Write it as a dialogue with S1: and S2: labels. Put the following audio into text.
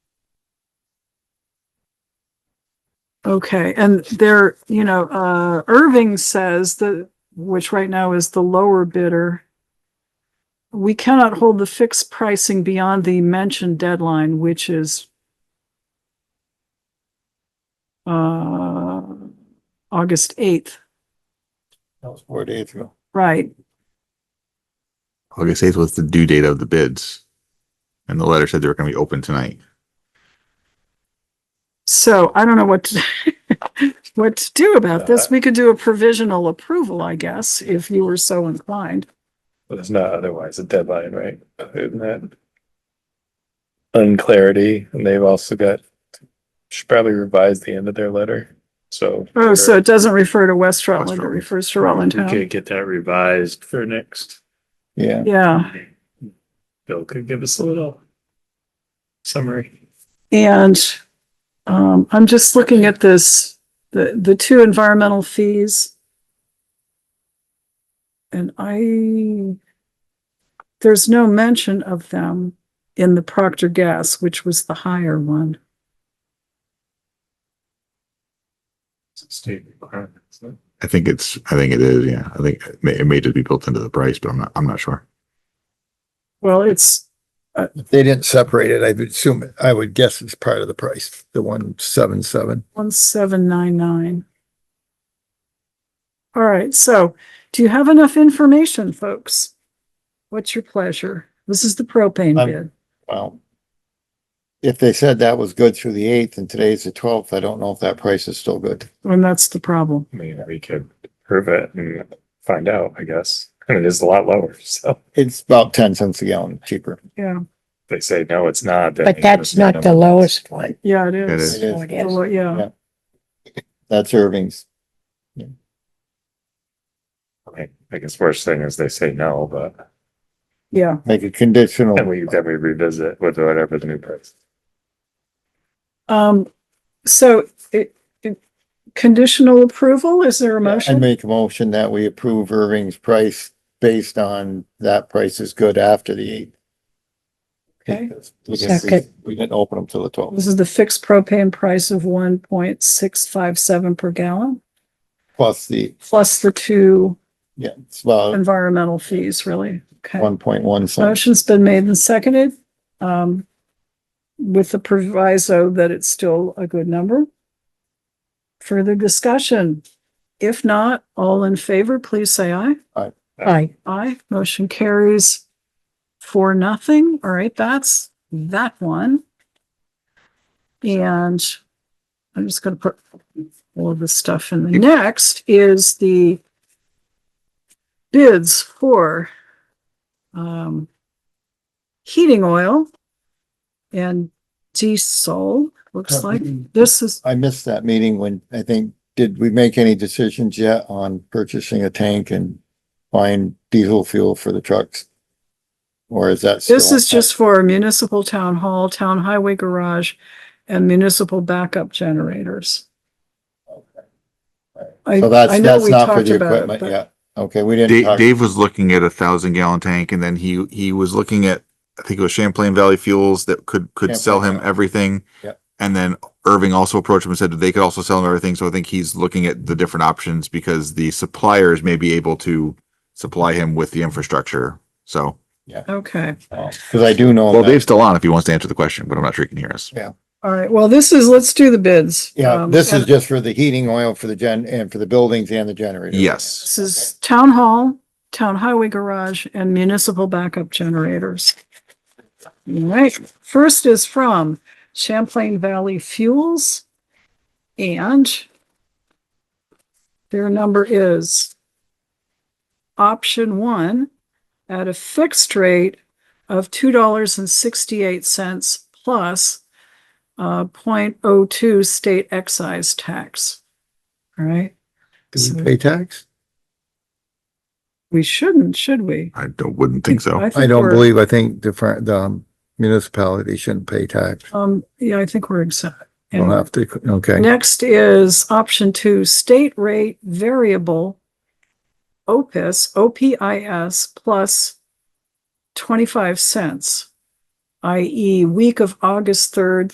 S1: Okay, and there, you know, uh, Irving says that, which right now is the lower bidder. We cannot hold the fixed pricing beyond the mentioned deadline, which is uh, August eighth,
S2: That was four days ago.
S1: right?
S3: August eighth was the due date of the bids. And the letter said they were gonna be open tonight.
S1: So I don't know what to, what to do about this. We could do a provisional approval, I guess, if you were so inclined.
S2: But it's not otherwise a deadline, right? Isn't that? Unclarity, and they've also got, should probably revise the end of their letter, so.
S1: Oh, so it doesn't refer to West Rutland, it
S3: Rutland.
S1: refers to Rutland
S4: We
S1: Town.
S4: could get that revised for next.
S2: Yeah,
S1: Yeah.
S4: meeting. Bill could give us a little summary.
S1: And um, I'm just looking at this, the, the two environmental fees. And I, there's no mention of them in the Procter Gas, which was the higher one.
S4: State requirements. huh?
S3: I think it's, I think it is, yeah. I think it may, it may just be built into the price, but I'm not, I'm not sure.
S1: Well, it's,
S5: If they didn't separate it, I would assume, it- I would guess it's part of the price, the one seven seven.
S1: one seven nine nine. All right, so do you have enough information, folks? What's your pleasure? This is the propane
S5: I'm-
S1: bid.
S5: Wow. If they said that was good through the eighth and today's the twelfth, I don't know if that price is still good.
S1: And that's the problem.
S4: I mean, we could prove it and find out, I guess. And it is a lot lower, so if
S5: It's about ten cents a gallon cheaper.
S1: Yeah,
S4: they say, no, it's not. then
S6: But
S4: we
S6: that's
S4: understand
S6: not the
S4: them.
S6: lowest one.
S1: yeah, it
S3: It
S1: is.
S3: is.
S5: It is,
S6: It is.
S1: Well, Yeah,
S5: Yeah. that's Irving's.
S4: I mean, I guess worst thing is they say no, but
S1: yeah.
S5: Make a conditional.
S4: then we, then we revisit with whatever the new price.
S1: Um, so it, it- conditional approval, is there a
S5: I
S1: motion?
S5: make a motion that we approve Irving's price based on that price is good after the eighth.
S1: Okay.
S5: We didn't-
S6: Second.
S5: We didn't open them till the twelfth,
S1: This is the fixed propane price of one point six five seven per gallon,
S5: plus the,
S1: plus the two
S5: yeah, it's about
S1: environmental fees, really. Okay.
S5: one point one cents.
S1: Motion's been made and seconded, um, with the proviso that it's still a good number. Further discussion? If not, all in favor, please say aye.
S6: Aye.
S1: Aye, motion carries for nothing. All right, that's that one. And I'm just gonna put all of this stuff in. The next is the bids for um heating oil and diesel, looks like. This is,
S5: I missed that meeting when, I think, did we make any decisions yet on purchasing a tank and buying diesel fuel for the trucks? Or is that?
S1: this
S5: still-
S1: is just for municipal town hall, town highway garage, and municipal backup generators. I,
S5: So
S1: I
S5: that's,
S1: know
S5: that's
S1: we
S5: not for
S1: talked
S5: the
S1: about it,
S5: equipment
S1: but
S5: yet. Okay, we didn't
S3: Dave,
S5: talk,
S3: Dave was looking at a thousand gallon tank and then he, he was looking at, I think it was Champlain Valley Fuels that could, could sell him
S5: Champlain.
S3: everything.
S5: Yep.
S3: And then Irving also approached him and said that they could also sell him everything. So I think he's looking at the different options because the suppliers may be able to supply him with the infrastructure. So,
S1: okay.
S5: because I do know.
S3: well,
S5: that-
S3: Dave's still on if he wants to answer the question, but I'm not sure he can hear us.
S1: All right. Well, this is, let's do the bids.
S5: Yeah,
S1: Um,
S5: this is
S1: and
S5: just for the heating oil for the gen, and for the buildings and the generator.
S3: Yes.
S1: This is town hall, town highway garage, and municipal backup generators. All right. First is from Champlain Valley Fuels. And their number is option one at a fixed rate of two dollars and sixty-eight cents plus uh, point oh two state excise tax. All right,
S5: Do
S1: Mm-hmm.
S5: we Pay tax?
S1: we shouldn't, should we?
S3: I don't, wouldn't think so.
S5: I
S1: think
S5: don't
S1: we're-
S5: believe, I think the, fir- the um, municipality shouldn't pay tax.
S1: Um, yeah, I think we're exempt.
S5: We'll
S1: Anyway.
S5: have to, okay.
S1: Next is option two, state rate variable OPIS, OPIS plus 25 cents, i.e. week e, of August 3rd